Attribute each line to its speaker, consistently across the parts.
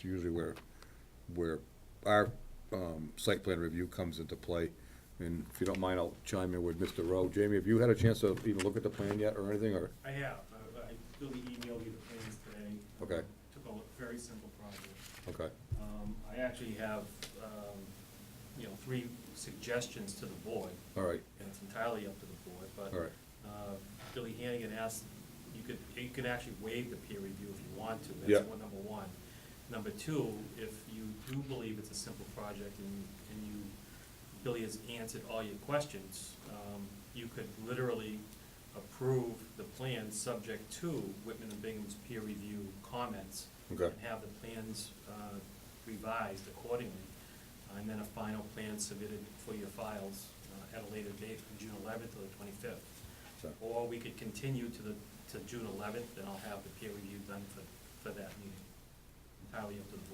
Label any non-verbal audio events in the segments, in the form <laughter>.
Speaker 1: It's usually where, where our um, site plan review comes into play. And if you don't mind, I'll chime in with Mr. Rowe. Jamie, have you had a chance to even look at the plan yet or anything, or?
Speaker 2: I have, I- I really emailed you the plans today.
Speaker 1: Okay.
Speaker 2: Took a look, very simple project.
Speaker 1: Okay,
Speaker 2: Um, I actually have, um, you know, three suggestions to the board,
Speaker 1: all right,
Speaker 2: and it's entirely up to the board, but.
Speaker 1: All right.
Speaker 2: uh, Billy Hannigan asked, you could, you could actually waive the peer review if you want to,
Speaker 1: Yeah.
Speaker 2: that's one, number one. Number two, if you do believe it's a simple project and, and you, Billy has answered all your questions, um, you could literally approve the plan subject to Whitman and Bingham's peer review comments.
Speaker 1: Okay.
Speaker 2: And have the plans uh, revised accordingly, and then a final plan submitted for your files uh, at a later date, from June eleventh to the twenty-fifth.
Speaker 1: so,
Speaker 2: Or we could continue to the, to June eleventh, and I'll have the peer review done for, for that meeting. Entirely up to the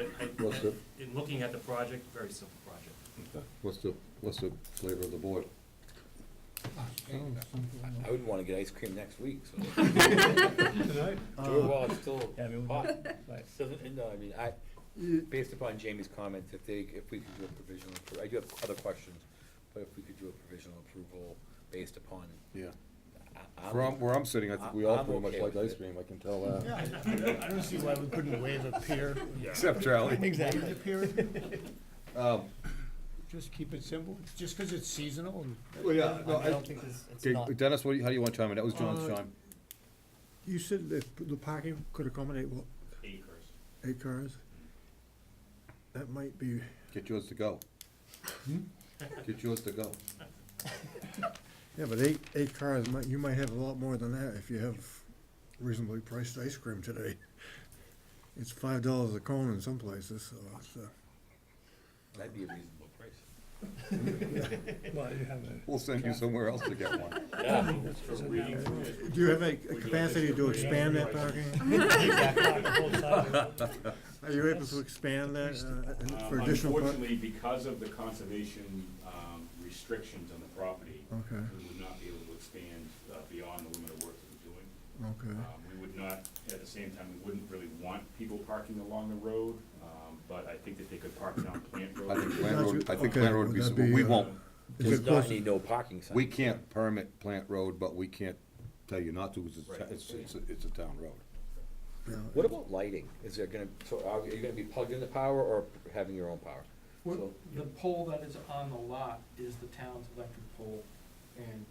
Speaker 2: board. But
Speaker 1: What's
Speaker 2: it,
Speaker 1: the-
Speaker 2: I, in looking at the project, very simple project.
Speaker 1: okay. what's the, what's the flavor of the board?
Speaker 3: I wouldn't wanna get ice cream next week, so. Sure, well, it's still hot. Doesn't, no, I mean, I, based upon Jamie's comments, if they, if we could do a provisional, appro- I do have other questions, but if we could do a provisional approval based upon, uh, um,
Speaker 1: Yeah.
Speaker 3: I,
Speaker 1: Where
Speaker 3: I'm,
Speaker 1: I'm, where I'm sitting, I think we all
Speaker 3: I'm
Speaker 1: pretty much
Speaker 3: okay
Speaker 1: like
Speaker 3: with
Speaker 1: ice
Speaker 3: it.
Speaker 1: cream, I can tell that.
Speaker 4: Yeah, I I don't see why we couldn't waive a peer.
Speaker 1: Except Charlie.
Speaker 4: Waive the peer review.
Speaker 1: <laughs> Um,
Speaker 4: Just keep it simple, just because it's seasonal and.
Speaker 1: Well, yeah, no, I-
Speaker 5: I don't think it's, it's
Speaker 1: okay,
Speaker 5: not.
Speaker 1: Dennis, what, do you- how do you want to chime in? That was John's
Speaker 6: Uh,
Speaker 1: chime.
Speaker 6: You said that the parking could accommodate, what,
Speaker 2: Acres.
Speaker 6: eight cars? That might be,
Speaker 1: Get yours to go. Get yours to go.
Speaker 6: yeah, but eight, eight cars, might you might have a lot more than that if you have reasonably priced ice cream today. <laughs> It's five dollars a cone in some places, so it's, uh,
Speaker 3: that'd be a reasonable price.
Speaker 5: Well, you have a.
Speaker 1: We'll send you somewhere else to get one.
Speaker 3: Yeah,
Speaker 6: do you have a a capacity to expand that parking? Are you able to expand that, uh, for
Speaker 7: Um,
Speaker 6: additional? par-
Speaker 7: Unfortunately, because of the conservation um, restrictions on the property,
Speaker 6: Okay,
Speaker 7: we would not be able to expand uh, beyond the limit of work that we're doing.
Speaker 6: okay,
Speaker 7: Um, We would not, at the same time, we wouldn't really want people parking along the road, um, but I think that they could park down Plant
Speaker 1: I think
Speaker 7: Road.
Speaker 1: Plant Road, I think
Speaker 6: Okay,
Speaker 1: Plant Road would be,
Speaker 6: would
Speaker 1: some-
Speaker 6: that be,
Speaker 1: we
Speaker 6: uh,
Speaker 1: won't,
Speaker 6: Is
Speaker 3: Does
Speaker 6: it
Speaker 3: not
Speaker 6: possi-
Speaker 3: need no parking sign.
Speaker 1: we can't permit Plant Road, but we can't tell you not to, 'cause it's, a ta-
Speaker 3: Right.
Speaker 1: it's, it's, a- it's a town road.
Speaker 6: yeah.
Speaker 3: What about lighting? Is there gonna, so are you gonna be plugged into power or having your own power?
Speaker 8: Well,
Speaker 3: So-
Speaker 8: The pole that is on the lot is the town's electric pole, and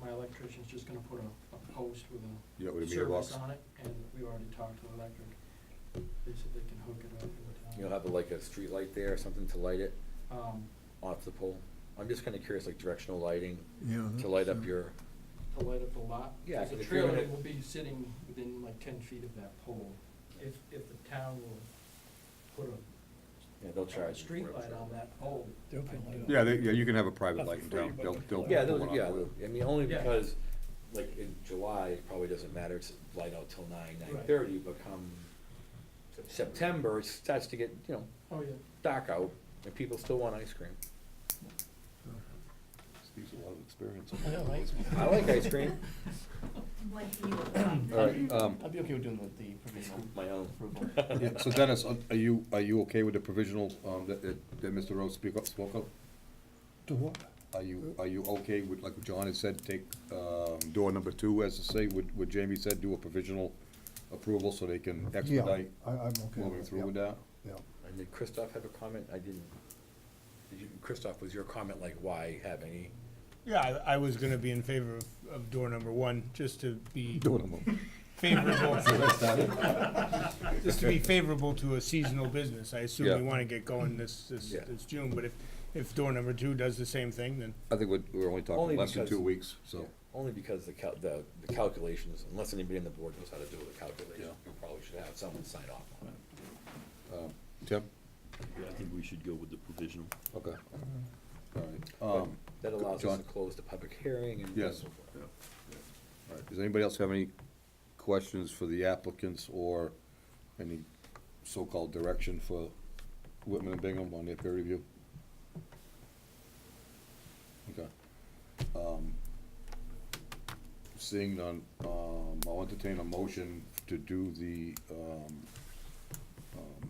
Speaker 8: my electrician's just gonna put a, a post with a
Speaker 1: Yeah, with a meter box.
Speaker 8: service on it, and we already talked to electric. They said they can hook it up in the
Speaker 3: You'll
Speaker 8: town.
Speaker 3: have like a street light there or something to light it
Speaker 8: Um,
Speaker 3: off the pole? I'm just kinda curious, like directional lighting
Speaker 6: Yeah,
Speaker 1: Mm-hmm.
Speaker 3: to light up
Speaker 6: that's, uh,
Speaker 3: your,
Speaker 8: to light up the lot.
Speaker 3: Yeah,
Speaker 8: There's a
Speaker 3: if you're gonna-
Speaker 8: trailer that will be sitting within like ten feet of that pole, if, if the town will put a,
Speaker 3: yeah, they'll
Speaker 8: a
Speaker 3: charge. you for it,
Speaker 8: streetlight
Speaker 3: so.
Speaker 8: on that pole.
Speaker 5: They'll put light on.
Speaker 1: Yeah, they, yeah, you can have a private
Speaker 5: Not for
Speaker 1: light in
Speaker 5: free,
Speaker 1: town,
Speaker 5: but
Speaker 1: they'll,
Speaker 5: to
Speaker 1: they'll.
Speaker 5: plug
Speaker 3: Yeah,
Speaker 1: put
Speaker 3: those,
Speaker 1: one on
Speaker 3: yeah,
Speaker 1: the-
Speaker 3: I mean, only
Speaker 8: Yeah.
Speaker 3: because, like, in July, it probably doesn't matter, it's light out till nine,
Speaker 8: Right.
Speaker 3: nine thirty, but come September, it starts to get, you know,
Speaker 8: Oh, yeah.
Speaker 3: dark out, and people still want ice cream.
Speaker 1: Steve's a lot of experience.
Speaker 5: I know, right?
Speaker 3: I like ice cream,
Speaker 9: What do you want?
Speaker 1: All right, um,
Speaker 5: I'd be okay with doing the, the provisional
Speaker 3: my own.
Speaker 5: approval.
Speaker 1: yeah, so Dennis, are are you, are you okay with the provisional, um, that, that, that Mr. Rose speak up, spoke up?
Speaker 6: To what?
Speaker 1: Are you, are you okay with, like John has said, take, um, door number two, as to say, what, what Jamie said, do a provisional approval so they can expedite
Speaker 6: Yeah, I, I'm okay. with
Speaker 1: moving
Speaker 6: it,
Speaker 1: through with
Speaker 6: yeah,
Speaker 1: that?
Speaker 6: yeah.
Speaker 3: And did Christoph have a comment? I didn't. Did you, Christoph, was your comment like, why have any?
Speaker 4: Yeah, I, I was gonna be in favor of, of door number one, just to be
Speaker 1: Doing them.
Speaker 4: favorable,
Speaker 1: Well,
Speaker 4: just to be favorable to a seasonal business. I assume
Speaker 1: Yeah.
Speaker 4: we wanna get going this, this,
Speaker 3: Yeah.
Speaker 4: this June, but if, if door number two does the same thing, then
Speaker 1: I think we're, we're only
Speaker 3: Only
Speaker 1: talking less than
Speaker 3: because-
Speaker 1: two weeks, so.
Speaker 3: Only because the cal, the, the calculations, unless anybody on the board knows how to do the calculations, we probably should have someone sign off on it.
Speaker 1: Tim?
Speaker 10: I think we should go with the provisional.
Speaker 1: Okay. All right. Um,
Speaker 3: That allows us
Speaker 1: John?
Speaker 3: to close the public hearing and.
Speaker 1: Yes.
Speaker 3: so forth.
Speaker 1: all right. Does anybody else have any questions for the applicants or any so-called direction for Whitman and Bingham on their peer review? Okay. Um, Seeing none, um, I'll entertain a motion to do the, um,